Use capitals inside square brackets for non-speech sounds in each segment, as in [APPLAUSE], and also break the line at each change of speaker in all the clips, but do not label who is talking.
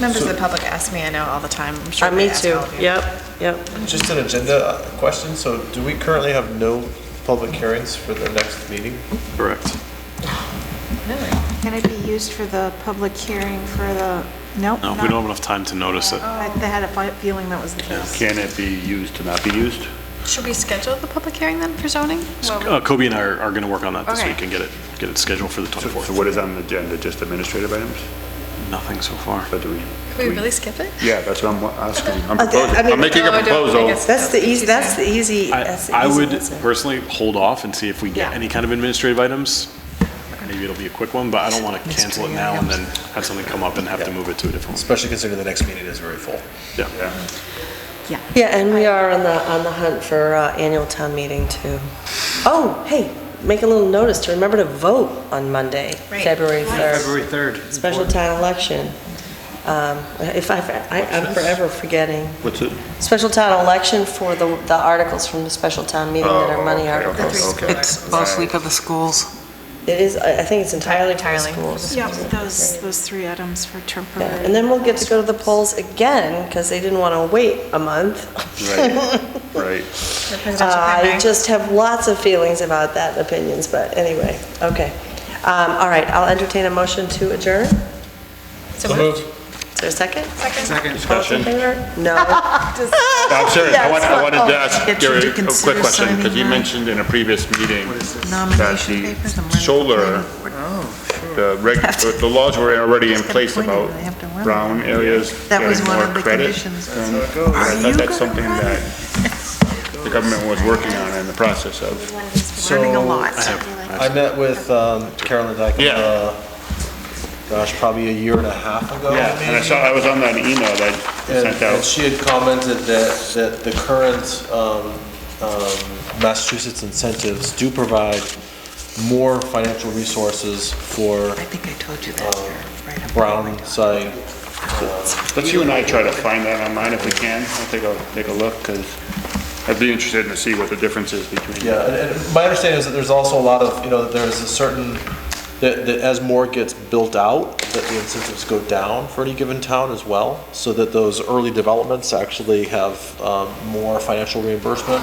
Members of the public ask me, I know all the time, I'm sure
Uh,
they
Me
ask
too,
all of you.
yep, yep.
Just an agenda uh, question, so do we currently have no public hearings for the next meeting?
Correct.
Can it be used for the public hearing for the, nope? Oh,
No, we don't have enough time to notice it.
Oh,
I I had a fi- feeling that was the case.
Can it be used to not be used?
Should we schedule the public hearing then for zoning?
Uh, Kobe and I are going to work on that this
Okay.
week and get it, get it scheduled for the
So
24th.
so what is on the agenda, just administrative items?
Nothing so far.
But do we?
Could we really skip it?
Yeah, that's what I'm asking. I'm
Okay, I
proposing,
mean-
I'm making a
No, I don't think
proposal.
it's-
That's the easy, that's the easy,
I
that's the
I
easy
would
answer.
personally hold off and see if we get
Yeah.
any kind of administrative items. Maybe it'll be a quick one, but I don't want to cancel it now and then have something come up and have to move it to a different one.
Especially considering the next meeting is very full.
Yeah.
Yeah.
Yeah, and we are on the, on the hunt for uh, annual town meeting too. Oh, hey, make a little notice to remember to vote on Monday,
Right.
February 3rd,
February 3rd.
special town election. Um, If I, I- I'm forever forgetting.
What's it?
Special town election for the, the articles from the special town meeting that are money
Oh, okay,
articles.
okay, okay.
It's mostly for the schools.
It is, I I think it's entirely for the
Entirely.
schools.
Yeah, those, those three items for temporary.
Yeah, And then we'll get to go to the polls again, because they didn't want to wait a month.
Right, right.
The presidential
uh, I
primary?
just have lots of feelings about that and opinions, but anyway, okay. Um, All right, I'll entertain a motion to adjourn.
So moved.
Is there a second?
Second.
All in
[LAUGHS] Discussion.
favor?
[LAUGHS]
No.
I'm serious, I want, I wanted to ask
Yes.
Gary a
Should we
quick
consider
question, because you
signing that?
mentioned in a previous meeting that
Nomination papers. and
the
we're-
solar, the reg, the laws were already in place
Disappointed
about
when they have to run.
brown areas
That was
getting
one
more
of the
credit.
conditions.
And I thought that's something that the government was working on in the process of.
Learning a lot.
I met with um, Carolyn Dyke,
Yeah.
uh, gosh, probably a year and a half ago,
Yeah, and I
maybe.
saw, I was on that email that you
And
sent out.
and she had commented that, that the current um, um, Massachusetts incentives do provide more financial resources for
I think I told you that. you're right up there.
brown side
Let's you and I try to find that online if we can. I'll take a, take a look, because I'd be interested to see what the difference is between.
Yeah, and, and my understanding is that there's also a lot of, you know, that there's a certain, that, that as more gets built out, that the incentives go down for any given town as well, so that those early developments actually have, um, more financial reimbursement.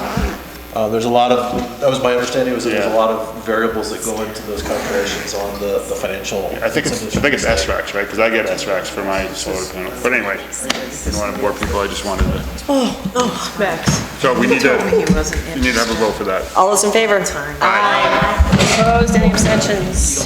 Uh, there's a lot of, that was my understanding, was that there's a
Yeah.
lot of variables that go into those calculations on the, the financial.
I think it's, I think it's
incentives.
SRAX, right? Because I get SRAX for my solar panel. But anyway, didn't want to bore people, I just wanted to.
Oh, Max,
So we need to,
told me he wasn't
we need to have a vote for that.
All those in favor? Aye. Opposed, any abstentions?